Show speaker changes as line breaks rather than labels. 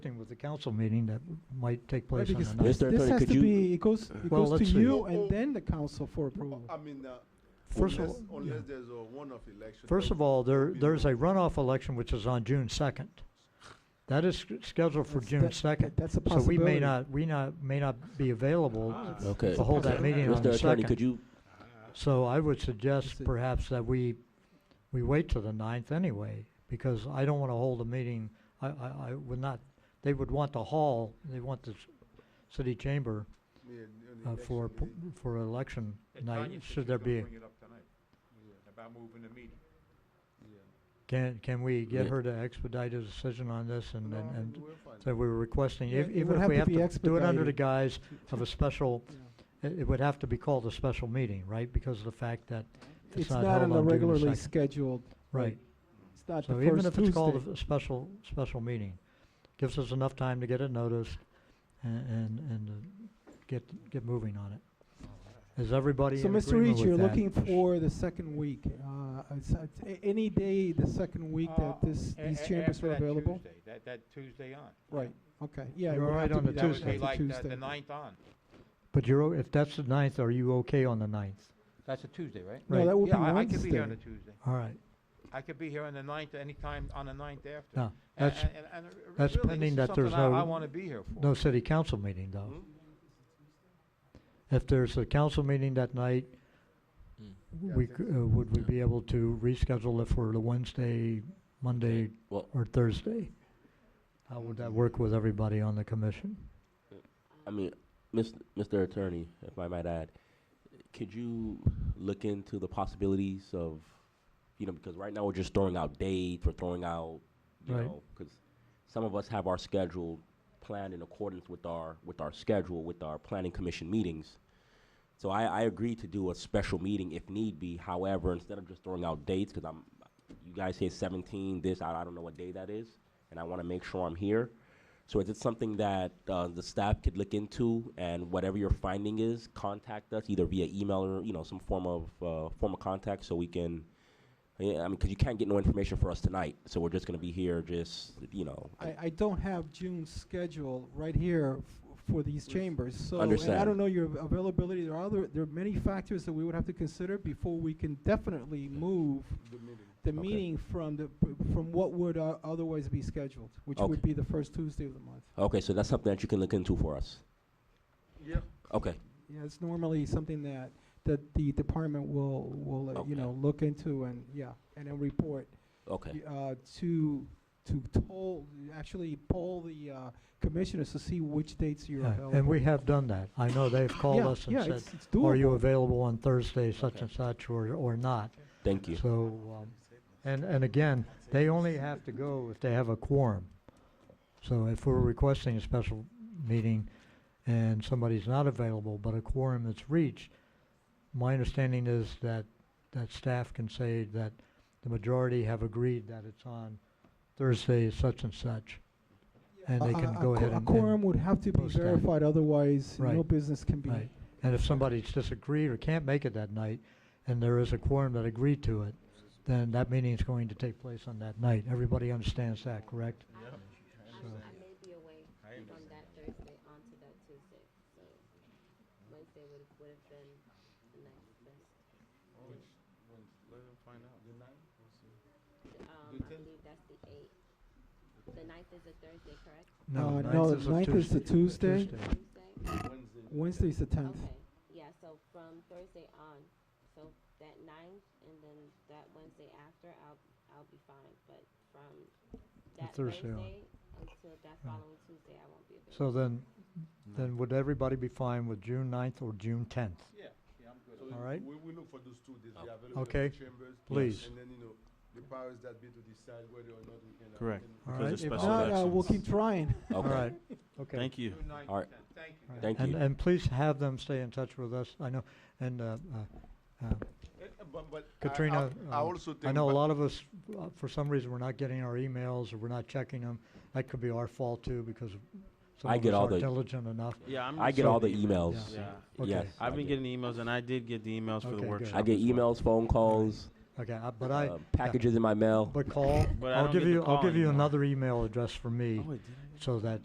thing with the council meeting that might take
Right,
place on
because
the
this
ninth.
Mr.
this
Attorney,
has
could
to
you-
be, it goes, it
Well,
goes to
let's see.
you and then the council for approval.
I mean, uh,
First of
unless,
all-
unless
yeah.
there's a one-off election.
First
then
of all, there,
we
there's
know.
a runoff election which is on June second. That is sc- scheduled for
That's-
June
that-
second.
That's a
So we
possibility.
may not, we not, may not be available
Ah.
Okay.
to hold that meeting on
Mr.
the
Attorney, could
second.
you,
uh, So I would
Let's
suggest
see.
perhaps that we, we wait till the ninth anyway, because I don't wanna hold a meeting, I, I, I would not, they would want the hall, they want the s- city chamber
Yeah, on the
uh, for,
election
p- for election night, should there be, a-
day.
about moving the meeting.
Yeah, yeah.
can, can we get
Yeah.
her to expedite a decision on this and,
No,
and,
I
and
mean, we're fine.
So we were requesting,
Yeah,
ev-
it would
even if
have
we
to
have
be
to do it under the
expedited.
guise of a special,
Yeah.
it it would have to be called a special meeting, right? Because of the fact that
It's
it's
not
not held
on a
on June
regularly
2nd.
scheduled.
Right.
It's not the
So even
first
if it's called
Tuesday.
a special, special meeting, gives us enough time to get it noticed a- and, and uh, get, get moving on it. Is everybody
So
in
Mr.
agreement
Reach, you're
with
looking
that?
for the second week, uh, it's, it's a- any day the second week that this,
Uh, A-
these
a-
chambers
after
are
that
available?
Tuesday, That, that Tuesday on.
Right, okay, yeah. it
You're
would
all
have
right
to
on
be
the
that-
That would
Tuesday.
be
that's a
like the-
Tuesday.
the ninth on.
But you're, o- if that's the ninth, are you okay on the ninth?
That's a Tuesday, right?
No,
Right.
that would be
Yeah, I I could be here on the
Wednesday.
Tuesday.
All right,
I could be here on the ninth, anytime on the ninth after.
No,
A-
that's-
and- and- and r-
that's
really,
pending
this is
that there's
something I- I
no-
wanna be here for.
no city council meeting though.
Hmm?
If there's a council meeting that night,
Mm.
Yeah, I
we,
think
c- uh, would we
Yeah.
be able to reschedule it for the Wednesday, Monday,
well,
or Thursday? How would that work with everybody on the commission?
I mean, Mis- Mr. Attorney, if I might add, could you look into the possibilities of, you know, because right now we're just throwing out dates, we're throwing out, you
Right.
know, because some of us have our schedule planned in accordance with our, with our schedule, with our planning commission meetings. So I, I agree to do a special meeting if need be, however, instead of just throwing out dates, because I'm, you guys say seventeen, this, I, I don't know what day that is, and I want to make sure I'm here. So is it something that uh, the staff could look into, and whatever your finding is, contact us either via email or you know some form of uh, form of contact, so we can. Yeah, I mean, because you can't get no information for us tonight, so we're just gonna be here, just you know.
I, I don't have June's schedule right here f- for these chambers, so. And I
Understand.
don't know your availability, there are other, there are many factors that we would have to consider before we can definitely move
The meeting.
the
Okay.
meeting from the, from what would uh, otherwise be scheduled, which
Okay.
would be the first Tuesday of the month.
Okay, so that's something that you can look into for us.
Yeah,
Okay,
Yeah, it's normally something that, that the department will, will, uh,
Okay.
you know, look into and, yeah, and then report.
okay,
y- uh, To, to toll, actually poll the uh, commissioners to see which dates you're
Yeah,
available.
And we have done that. I know they've called
Yeah,
us
yeah,
and said,
it's- it's
are you
doable.
available on Thursday, such
Okay.
and such, or, or not?
thank you.
So, um, and, and again, they only have to go if they have a quorum. So if we're requesting a special meeting and somebody's not available, but a quorum is reached, my understanding is that, that staff can say that the majority have agreed that it's on Thursday such and such. And they
A-
can
a- a
go
qu-
ahead and,
A quorum
and,
would have to be
post that.
verified, otherwise no
Right,
business can be.
right. and if somebody's disagreed or can't make it that night, and there is a quorum that agreed to it, then that meeting is going to take place on that night. Everybody understands that, correct?
I may be away from that Thursday onto that Tuesday, so Wednesday would, would have been the next best.
let him find out. The ninth?
Um, I believe that's the eighth. The ninth is a Thursday, correct?
Uh,
No,
no,
ninth is a
ninth is the Tuesday.
Tuesday?
Wednesday.
Wednesday's the tenth.
Okay, yeah, so from Thursday on, so that ninth and then that Wednesday after, I'll, I'll be fine, but from that
Thursday on.
Thursday until that following Tuesday, I won't be available.
So then, then would everybody be fine with June ninth or June tenth?
Yeah, yeah, I'm good.
So we-
All right.
We, we look for those two days, we are available
Okay.
for chambers.
Please.
And then, you know, the powers that be to decide whether or not we can. uh,
Correct.
can-
All
Because
right,
it's
If
special
not, uh, we'll
elections.
keep trying.
All right,
Okay,
okay.
Thank you.
June ninth,
All right.
tenth. Thank you.
All right.
Thank
and,
you.
And please have them stay in touch with us. I know, and uh, uh, uh,
Eh, eh, But, but. I- I-
Katrina,
I
um,
also think.
I know a
but-
lot of us, uh, for some reason, we're not getting our emails or we're not checking them. That could be our fault too because some
I
of
get
us
all
aren't
the-
diligent enough.
Yeah, I'm.
I
just
get all the
getting
emails.
Yeah,
Okay.
Yes, I
I've been
get-
getting emails, and I did get the emails for
Okay,
the
good.
workshop.
I get
as well.
emails, phone calls,
Okay, I, but I
uh, packages in my mail.
but call.
But I
I'll
don't
give
get the
you. I'll
call
give you
anymore.
another email address for me.
Oh, wait, did I get
so that